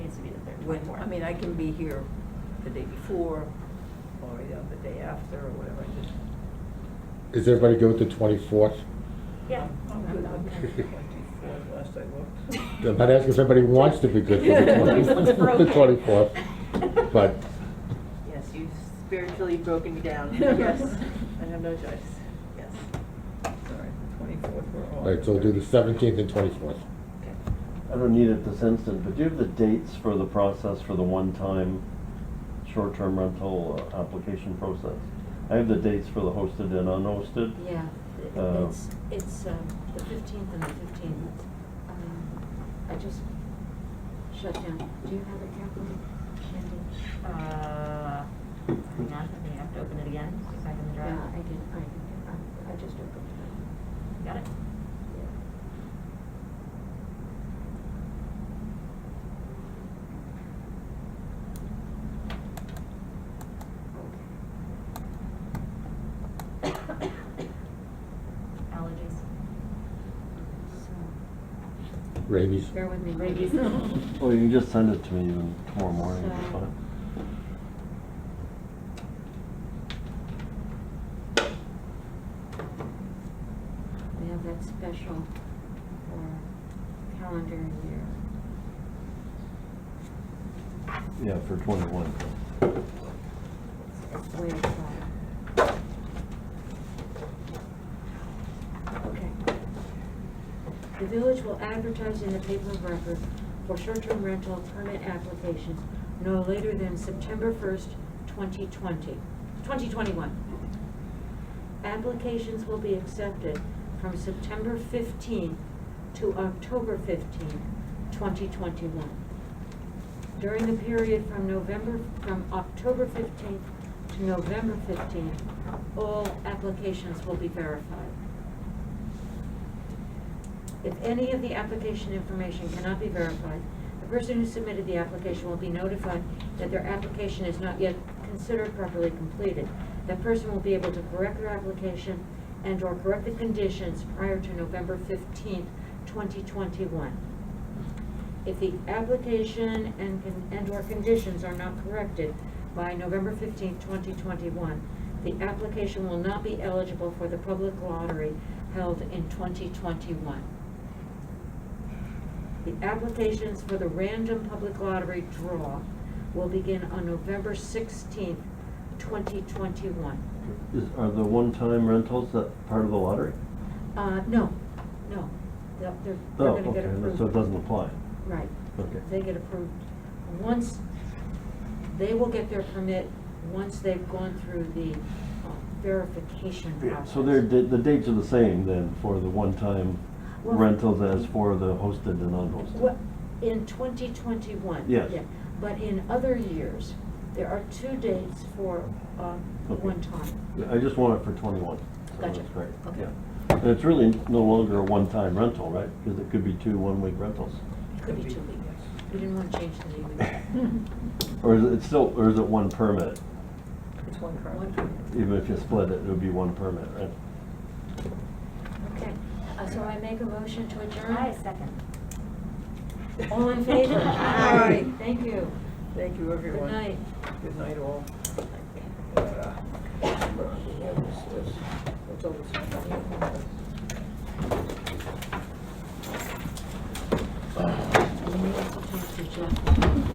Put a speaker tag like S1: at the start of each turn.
S1: when,
S2: Twenty-four.
S1: I mean, I can be here the day before or you know, the day after or whatever, I just.
S3: Is everybody good with the twenty-fourth?
S2: Yeah. Oh,
S1: I'm um, good on the twenty-fourth, last I looked.
S3: I'm not asking if everybody wants to be good for the
S2: We're
S3: twenty,
S2: okay.
S3: the twenty-fourth, but
S4: Yes, you've spiritually broken me down.
S2: Yes.
S4: I have no choice. Yes.
S1: Sorry, the twenty-fourth, we're all.
S3: All right, so we'll do the seventeenth and twenty-fourth.
S5: I don't need it this instant, but do you have the dates for the process for the one-time short-term rental uh, application process? I have the dates for the hosted and unhosted.
S6: Yeah, th-
S5: Uh,
S6: it's, it's um, the fifteenth and the fifteenth. Um, I just shut down. Do you have it, Kathleen? Candy?
S2: Uh, I'm not, I mean, I have to open it again, see if I can
S6: Yeah,
S2: draw.
S6: I did, I, I- I just opened
S2: Got it? Allergies.
S6: it. So,
S3: Rabies.
S6: bear with me.
S2: Rabies.
S5: Well, Oh, you can just send it to me even tomorrow morning, it's
S6: So-
S5: fine.
S6: We have that special for calendar year.
S5: Yeah, for twenty-one.
S6: It's way up. Okay. The village will advertise in the paper of record for short-term rental permit applications no later than September first, 2020, 2021. Applications will be accepted from September fifteenth to October fifteenth, twenty twenty-one during the period from November, from October 15th to November 15th, all applications will be verified. If any of the application information cannot be verified, the person who submitted the application will be notified that their application is not yet considered properly completed. That person will be able to correct their application and/or correct the conditions prior to November 15th, 2021. If the application and, con- and/or conditions are not corrected by November fifteenth, twenty twenty-one, the application will not be eligible for the public lottery held in twenty twenty-one. The applications for the random public lottery draw will begin on November sixteenth, twenty twenty-one.
S5: Is, are the one-time rentals that part of the lottery?
S6: Uh, no, no, they're, they're
S5: Oh,
S6: they're gonna
S5: okay,
S6: get approved.
S5: so it doesn't apply.
S6: Right.
S5: Okay.
S6: They get approved. Once, they will get their permit once they've gone through the uh, verification
S5: Yeah,
S6: process.
S5: so they're, the the dates are the same then for the one-time
S6: Well-
S5: rentals as for the hosted and unhosted?
S6: Well, In twenty twenty-one.
S5: Yes.
S6: But in other years, there are two dates for uh,
S5: Okay.
S6: one time.
S5: Yeah, I just want it for twenty-one. so
S6: Gotcha.
S5: That's great,
S6: Okay.
S5: yeah. And it's really no longer a one-time rental, right? Because it could be two one-week rentals.
S6: It could be two weeks. We didn't want to change the name.
S5: Or is it still, or is it one permit?
S1: It's one card.
S6: One permit.
S5: Even if you split it, it would be one permit, right?
S6: Okay, Uh, so I make a motion to adjourn?
S2: I second.
S6: All in favor?
S1: Aye.
S6: Thank you.
S1: Thank you,
S6: Good
S1: everyone.
S6: night.
S1: Good night, all. Uh, It's over.
S6: I need to talk to Jeff.